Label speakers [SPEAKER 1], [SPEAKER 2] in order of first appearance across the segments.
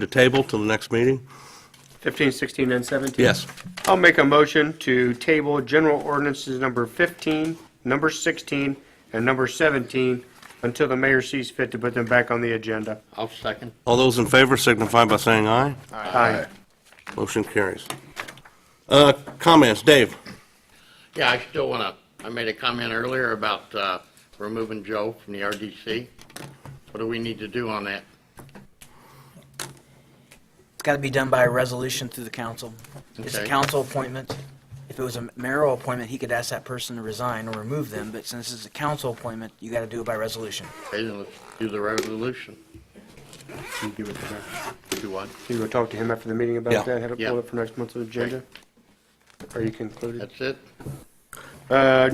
[SPEAKER 1] to table till the next meeting?
[SPEAKER 2] 15, 16, and 17?
[SPEAKER 1] Yes.
[SPEAKER 2] I'll make a motion to table general ordinances number 15, number 16, and number 17 until the mayor sees fit to put them back on the agenda.
[SPEAKER 3] I'll second.
[SPEAKER 1] All those in favor signify by saying aye.
[SPEAKER 2] Aye.
[SPEAKER 1] Motion carries. Uh, Comments, Dave?
[SPEAKER 3] Yeah, I still want to, I made a comment earlier about uh, removing Joe from the RDC. What do we need to do on that?
[SPEAKER 4] It's got to be done by a resolution through the council. It's a
[SPEAKER 3] Okay.
[SPEAKER 4] council appointment. If it was a mayoral appointment, he could ask that person to resign or remove them, but since it's a council appointment, you got to do it by resolution.
[SPEAKER 3] Okay, then let's do the resolution.
[SPEAKER 2] Can you give it to her?
[SPEAKER 3] Do what?
[SPEAKER 2] Can you go talk to him after the meeting
[SPEAKER 1] Yeah.
[SPEAKER 2] about that? Have it pulled
[SPEAKER 3] Yeah.
[SPEAKER 2] up for next month's agenda? Are you concluded?
[SPEAKER 3] That's it?
[SPEAKER 2] Uh,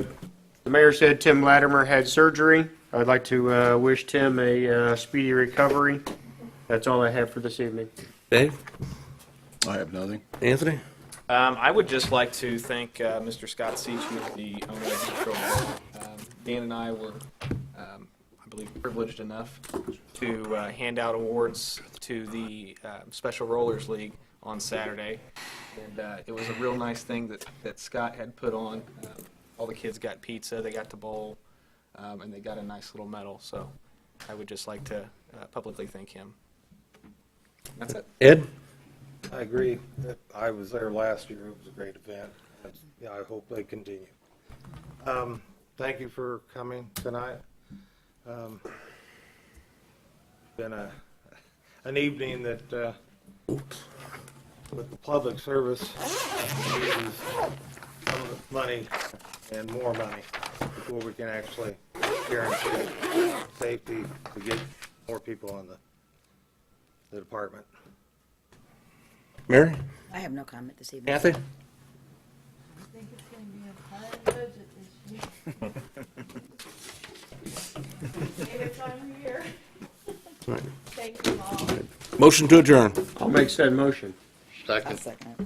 [SPEAKER 2] The mayor said Tim Latimer had surgery. I'd like to uh, wish Tim a uh, speedy recovery. That's all I have for this evening.
[SPEAKER 1] Dave?
[SPEAKER 5] I have nothing.
[SPEAKER 1] Anthony?
[SPEAKER 6] Um, I would just like to thank uh, Mr. Scott Seachy, the owner of the Control Room. Um, Dan and I were, um, I believe, privileged enough to uh, hand out awards to the uh, Special Rollers League on Saturday. And uh, it was a real nice thing that, that Scott had put on. Um, all the kids got pizza, they got to bowl, um, and they got a nice little medal. So I would just like to uh, publicly thank him. That's it.
[SPEAKER 1] Ed?
[SPEAKER 7] I agree. I was there last year. It was a great event. That's- Yeah, I hope they continue. Um, Thank you for coming tonight. Um, Been a, an evening that, uh, with the public service, uses some of the money and more money before we can actually guarantee safety to get more people on the, the department.
[SPEAKER 1] Mary?
[SPEAKER 8] I have no comment this evening.
[SPEAKER 1] Kathy?
[SPEAKER 9] think it's gonna be a high budget this year. Favorite time of year.
[SPEAKER 1] All right.
[SPEAKER 9] Thank you all.
[SPEAKER 1] Motion to adjourn.
[SPEAKER 2] I'll make said motion.
[SPEAKER 3] Second.
[SPEAKER 8] I'll second it.